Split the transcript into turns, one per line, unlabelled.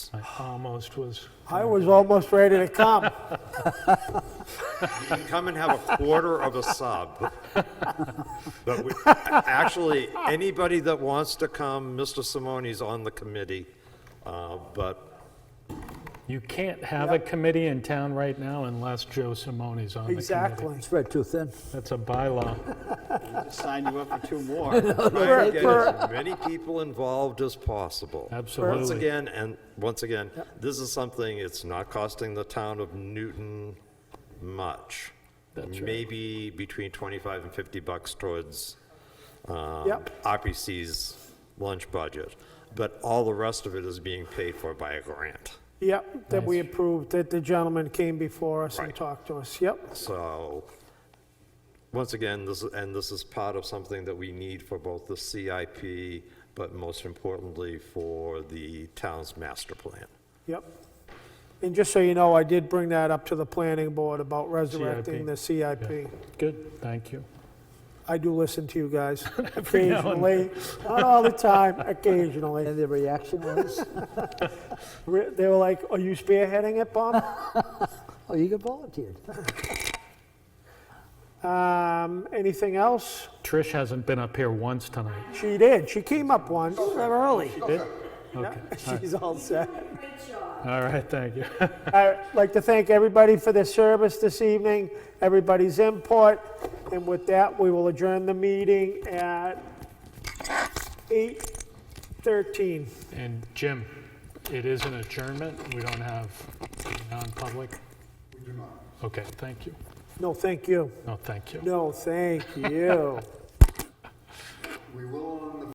I almost was.
I was almost ready to come.
You can come and have a quarter of a sub. But we, actually, anybody that wants to come, Mr. Simone's on the committee. Uh, But
You can't have a committee in town right now unless Joe Simone's on the committee.
Exactly.
Spread too thin.
That's a bylaw.
Sign you up for two more.
try to get as many people involved as possible.
Absolutely.
Once again, and once again, this is something, it's not costing the town of Newton much.
That's right.
Maybe between 25 and 50 bucks towards um,
Yep.
RPC's lunch budget. But all the rest of it is being paid for by a grant.
Yep, that we approved, that the gentleman came before us and
Right.
talked to us. Yep,
So, once again, this, and this is part of something that we need for both the CIP, but most importantly, for the town's master plan.
yep. And just so you know, I did bring that up to the planning board about
CIP.
resurrecting the CIP.
Good, thank you.
I do listen to you guys occasionally, not all the time, occasionally.
And the reaction was,
Re- They were like, are you spearheading it, Bob?
oh, you got volunteered.
Um, anything else?
Trish hasn't been up here once tonight.
She did, she came up once. Early.
Okay,
She's all set.
all right, thank you.
I'd like to thank everybody for their service this evening, everybody's input, and with that, we will adjourn the meeting at 8:13.
And Jim, it is an adjournment, we don't have non-public? We do not. Okay, thank you.
No, thank you.
No, thank you.
No, thank you.
We will